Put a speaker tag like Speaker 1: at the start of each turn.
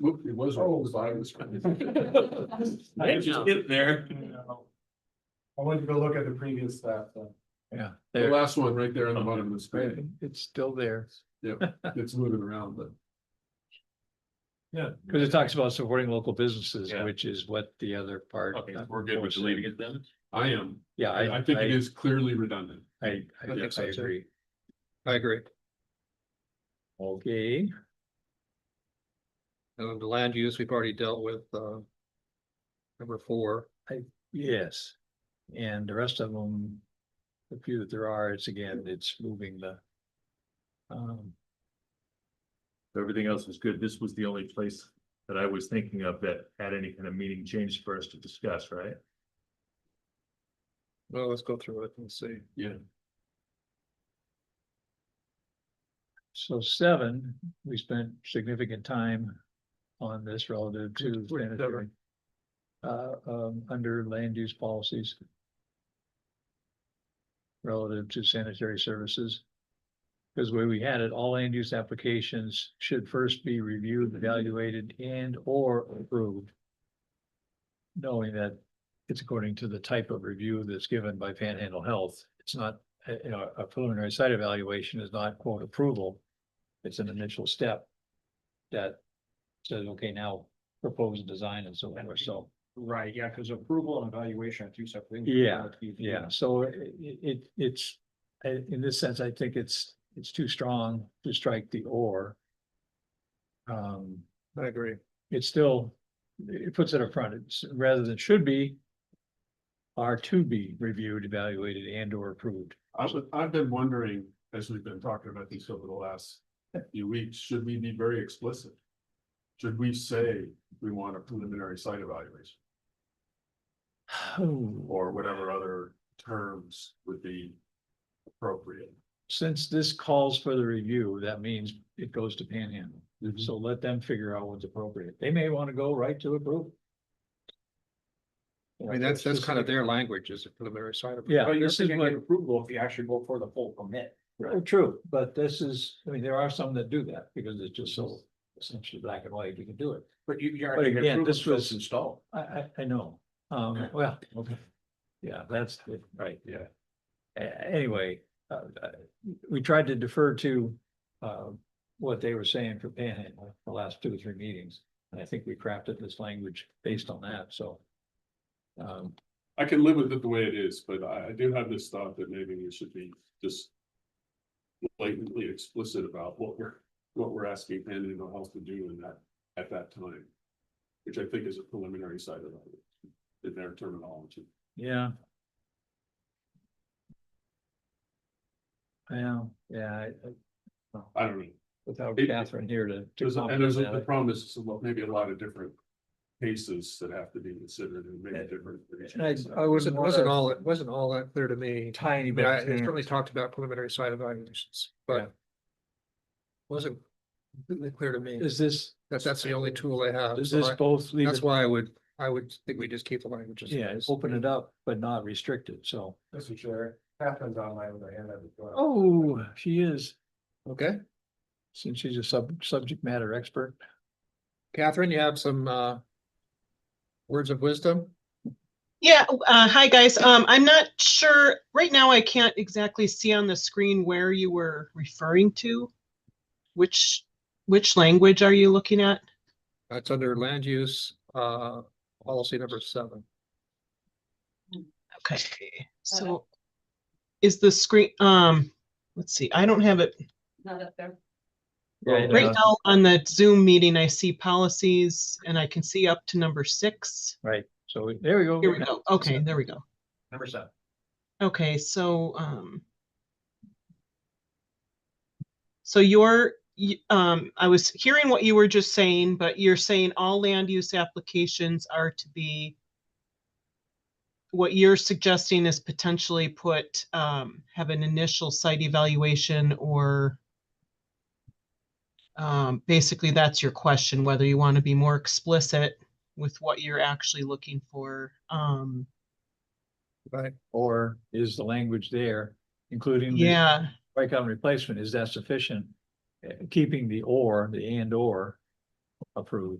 Speaker 1: It was. Oh. I
Speaker 2: They just get there.
Speaker 3: I went to go look at the previous stuff, so.
Speaker 4: Yeah,
Speaker 1: The
Speaker 4: there,
Speaker 1: last one right there on the bottom of the screen.
Speaker 4: it's still there,
Speaker 1: It's moving around, but
Speaker 4: because it talks about supporting local businesses,
Speaker 2: Yeah.
Speaker 4: which is what the other part.
Speaker 2: Okay, we're good with deleting it then?
Speaker 1: I am.
Speaker 4: Yeah, I,
Speaker 1: I think it
Speaker 4: I,
Speaker 1: is clearly redundant.
Speaker 4: I, I
Speaker 1: think
Speaker 4: guess I
Speaker 1: so, too.
Speaker 4: agree.
Speaker 5: I agree.
Speaker 4: Okay,
Speaker 5: And the land use, we've already dealt with, uh. Number four,
Speaker 4: yes. And the rest of them, the few that there are, it's again, it's moving the. Um,
Speaker 2: Everything else is good. This was the only place that I was thinking of that had any kind of meaning change for us to discuss, right?
Speaker 5: well, let's go through it and see.
Speaker 4: so seven, we spent significant time on this relative to
Speaker 5: Which- which seven?
Speaker 4: sanitary. Uh, um, under land use policies. Relative to sanitary services. Because the way we had it, all land use applications should first be reviewed, evaluated and or approved. Knowing that it's according to the type of review that's given by Panhandle Health. It's not, uh, you know, a preliminary site evaluation is not quote approval. It's an initial step that says, okay, now propose design and so forth. So,
Speaker 6: Right, yeah, because approval and evaluation are two separate things.
Speaker 4: Yeah, yeah, so i- i- it, it's, i- in this sense, I think it's, it's too strong to strike the or. Um,
Speaker 5: I agree.
Speaker 4: it still, it puts it up front, it's rather than should be. Are to be reviewed, evaluated and or approved.
Speaker 1: I've, I've been wondering, as we've been talking about these over the last few weeks, should we be very explicit? Should we say we want a preliminary site evaluation
Speaker 5: Oh.
Speaker 1: or whatever other terms would be appropriate?
Speaker 4: Since this calls for the review, that means it goes to Panhandle.
Speaker 5: Mm-hmm.
Speaker 1: Mhm.
Speaker 4: So let them figure out what's appropriate. They may want to go right to approve.
Speaker 5: I mean, that's, that's kind of their language is a preliminary side of.
Speaker 4: Yeah,
Speaker 6: But you're
Speaker 4: this is
Speaker 6: thinking
Speaker 4: what,
Speaker 6: approval if you actually go for the full permit.
Speaker 4: oh, true, but this is, I mean, there are some that do that because it's just so essentially black and white, you can do it.
Speaker 6: But you, you're.
Speaker 4: But
Speaker 6: actually
Speaker 4: again,
Speaker 6: approving
Speaker 4: this
Speaker 6: what's
Speaker 4: was-
Speaker 6: Installed.
Speaker 4: I, I, I know, um, well, okay. Yeah, that's, it, right, yeah. A- anyway, uh, uh, we tried to defer to, uh, what they were saying for Panhandle, the last two or three meetings. And I think we crafted this language based on that, so. Um,
Speaker 1: I can live with it the way it is, but I, I do have this thought that maybe we should be just. Blatantly explicit about what we're, what we're asking Panhandle Health to do in that, at that time. Which I think is a preliminary side of it, in their terminology.
Speaker 4: yeah. Yeah, yeah, I- I-
Speaker 1: I don't know.
Speaker 4: without
Speaker 1: It-
Speaker 4: Catherine here to. to
Speaker 1: There's, a-
Speaker 4: comment
Speaker 1: and there's
Speaker 4: on
Speaker 1: a-
Speaker 4: that,
Speaker 1: the problem is, well, maybe a lot of different cases that have to be considered and maybe different. for each
Speaker 4: And I-
Speaker 1: case.
Speaker 4: I
Speaker 5: Uh, It
Speaker 4: would
Speaker 5: wasn't, wasn't
Speaker 4: wanna-
Speaker 5: all, it wasn't all that clear to me.
Speaker 4: Tiny
Speaker 5: I mean,
Speaker 4: bit.
Speaker 5: I, it certainly talked about preliminary side evaluations,
Speaker 4: Yeah.
Speaker 5: but. Wasn't completely clear to me.
Speaker 4: Is this,
Speaker 5: That, that's the only tool I have.
Speaker 4: is
Speaker 5: so
Speaker 4: this
Speaker 5: I-
Speaker 4: both? leave
Speaker 5: That's
Speaker 4: it-
Speaker 5: why I would, I would think we just keep the language. as it
Speaker 4: Yeah,
Speaker 5: is.
Speaker 4: open it up, but not restrict it, so.
Speaker 3: Mr. Chair, Catherine's online with her hand up as well.
Speaker 4: Oh, she is,
Speaker 5: Okay,
Speaker 4: since she's a sub, subject matter expert.
Speaker 5: Catherine, you have some, uh. Words of wisdom?
Speaker 7: Yeah, uh, hi guys. Um, I'm not sure, right now I can't exactly see on the screen where you were referring to. Which, which language are you looking at?
Speaker 5: That's under land use, uh, policy number seven.
Speaker 7: Okay, so is the screen, um, let's see, I don't have it.
Speaker 8: not up there.
Speaker 7: Right now on the Zoom meeting, I see policies and I can see up to number six.
Speaker 4: So we- there we go.
Speaker 7: Here we go. Okay, there we go.
Speaker 6: Number seven.
Speaker 7: Okay, so, um. So you're, y- um, I was hearing what you were just saying, but you're saying all land use applications are to be. What you're suggesting is potentially put, um, have an initial site evaluation or. Um, basically, that's your question, whether you want to be more explicit with what you're actually looking for, um.
Speaker 5: Right,
Speaker 4: Or is the language there, including? the
Speaker 7: Yeah,
Speaker 4: Strikeout and
Speaker 5: Eh,
Speaker 4: replacement, is that sufficient? Uh, Keeping the or, the and or approved.